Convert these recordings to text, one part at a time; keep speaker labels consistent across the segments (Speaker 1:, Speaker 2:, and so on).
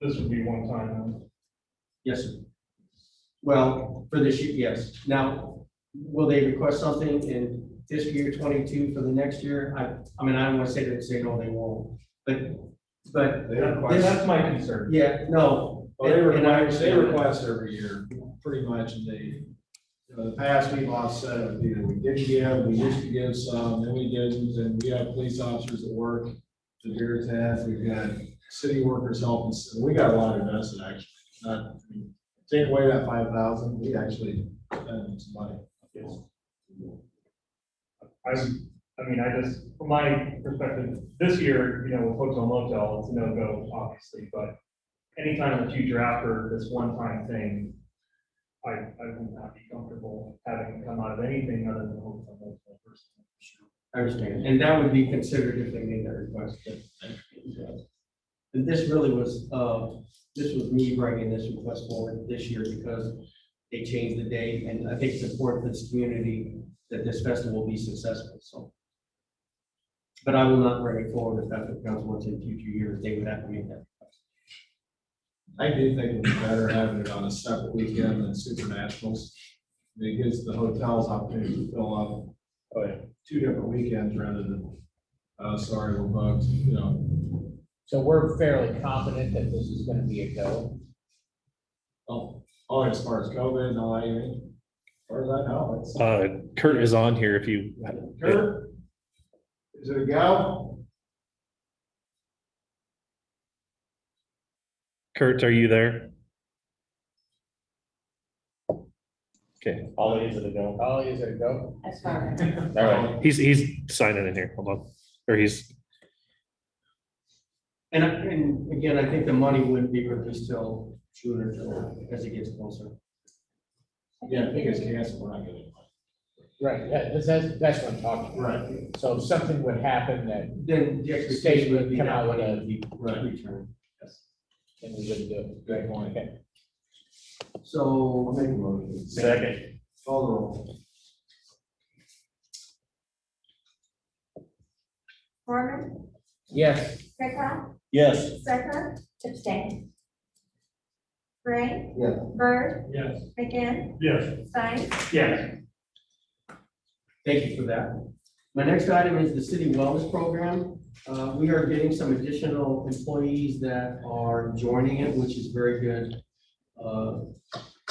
Speaker 1: This would be one time.
Speaker 2: Yes, sir. Well, for this year, yes. Now, will they request something in fiscal year twenty-two for the next year? I, I mean, I don't want to say that, say no, they won't, but, but,
Speaker 3: They
Speaker 1: That- That's
Speaker 3: request,
Speaker 1: my concern.
Speaker 2: yeah, no.
Speaker 3: well, they
Speaker 2: and- and I
Speaker 3: request, they
Speaker 2: understand that.
Speaker 3: request every year, pretty much, and they, you know, the past, we've offset, it. you know, we didn't give, we used to give some, then we didn't, and we have police officers at work to hear that, we've got city workers helping, so we got a lot invested, actually, not, I mean, take away that five thousand, we actually spent some money.
Speaker 1: I, I mean, I just, from my perspective, this year, you know, with folks on Motel, it's a no-go, obviously, but anytime in the future after this one-time thing, I, I would not be comfortable having it come out of anything other than hotel motel personally.
Speaker 2: I understand, and that would be considered if they made that request, but. And this really was, uh, this was me bringing this request forward this year because they changed the date, and I think it's important for this community that this festival be successful, so. But I will not bring it forward if that's what council wants in future years, they would have to make that.
Speaker 3: I do think it'd be better having it on a separate weekend than Super Nationals. I mean, It gives the hotels opportunity to fill up uh, two different weekends rather than, uh, sorry, we're booked, you know.
Speaker 4: So we're fairly confident that this is gonna be a go.
Speaker 3: Oh, oh, as far as COVID and all that, you mean? As far as I know, it's.
Speaker 5: Uh, Kurt is on here if you,
Speaker 3: Kurt? Is it a gal?
Speaker 5: Kurt, are you there? Okay,
Speaker 4: Ollie is it a go? Ollie is it a go?
Speaker 6: As far as.
Speaker 4: All right,
Speaker 5: he's, he's signing in here, hold on, or he's,
Speaker 2: And, I- and again, I think the money wouldn't be released till June or July, as it gets closer.
Speaker 3: Yeah, I think it's canceled, we're not getting it.
Speaker 4: right, that- that's, that's, that's what I'm talking about.
Speaker 3: Right,
Speaker 4: So if something would happen that
Speaker 2: Then the
Speaker 4: the state
Speaker 2: expectation would
Speaker 4: would
Speaker 2: be
Speaker 4: come
Speaker 2: that
Speaker 4: out with
Speaker 2: money
Speaker 4: a, deep-
Speaker 3: right.
Speaker 2: returned. Yes.
Speaker 4: and we wouldn't do it.
Speaker 3: Good point.
Speaker 4: Okay.
Speaker 2: So,
Speaker 3: Make a motion.
Speaker 2: Second.
Speaker 3: Call the roll.
Speaker 6: Mormon,
Speaker 4: Yes,
Speaker 6: Pickla,
Speaker 5: yes,
Speaker 6: Sucker, abstain. Gray.
Speaker 3: Yeah.
Speaker 6: Bird,
Speaker 1: Yes.
Speaker 6: McGinn,
Speaker 1: Yes.
Speaker 6: Stein,
Speaker 1: Yes.
Speaker 2: thank you for that. My next item is the city wellness program. Uh, we are getting some additional employees that are joining it, which is very good. uh,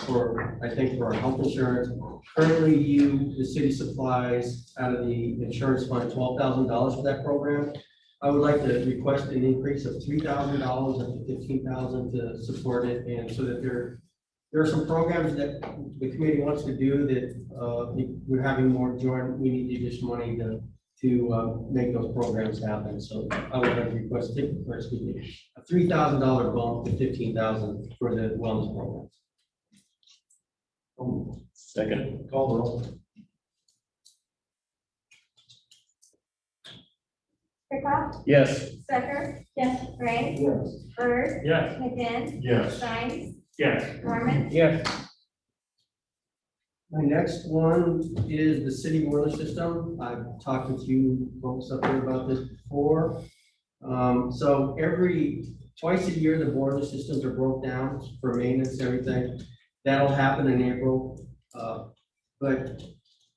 Speaker 2: For, I think for our health insurance. Currently, you, the city supplies out of the insurance fund twelve thousand dollars for that program. I would like to request an increase of three thousand dollars up to fifteen thousand dollars to support it and so that there there are some programs that the committee wants to do that, uh, we- we're having more joint, we need to just money to, to, uh, make those programs happen, so I would like to request, it- or excuse me, a three thousand dollar bump to fifteen thousand for the wellness programs.
Speaker 3: Second. Call the roll.
Speaker 6: Pickla,
Speaker 4: yes,
Speaker 6: Sucker. Yes. Gray,
Speaker 3: Yes.
Speaker 6: Bird,
Speaker 1: Yes.
Speaker 6: McGinn,
Speaker 3: Yes.
Speaker 6: Stein,
Speaker 1: Yes.
Speaker 6: Mormon,
Speaker 4: yes,
Speaker 2: My next one is the city boiler system. I've talked with you folks up there about this before. Um, so every, twice a year, the boiler systems are broke down for maintenance, everything. That'll happen in April. Uh, But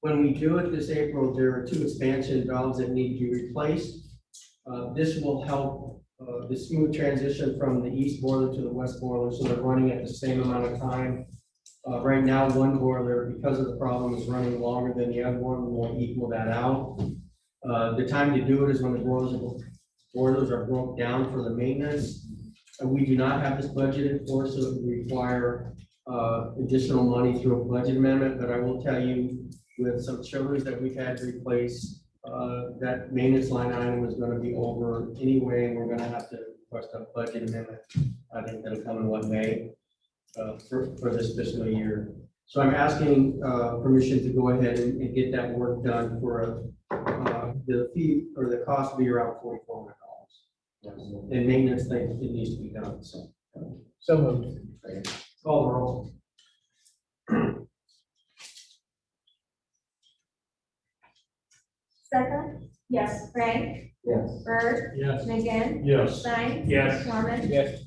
Speaker 2: when we do it this April, there are two expansion valves that need to be replaced. Uh, this will help, uh, the smooth transition from the east boiler to the west boiler, so they're running at the same amount of time. Uh, right now, one boiler, because of the problem, is running longer than the other one, we won't equal that out. Uh, the time to do it is when the boilers are, boilers are broke down for the maintenance. And we do not have this budgeted for, so it would require, uh, additional money through a budget amendment, but I will tell you, with some chillers that we've had to replace, uh, that maintenance line item was gonna be over anyway, and we're gonna have to request a budget amendment. I think that'll come in what, May? uh, for, for this fiscal year. So I'm asking uh, permission to go ahead and and get that work done for uh, the fee, or the cost will be around forty-four hundred dollars. And maintenance thing, it needs to be done, so.
Speaker 4: so moved,
Speaker 2: Call the roll.
Speaker 6: Sucker. Yes. Gray. Yes. Bird,
Speaker 1: Yes.
Speaker 6: McGinn,
Speaker 1: Yes.
Speaker 6: Stein.
Speaker 1: Yes.
Speaker 6: Mormon,
Speaker 4: yes.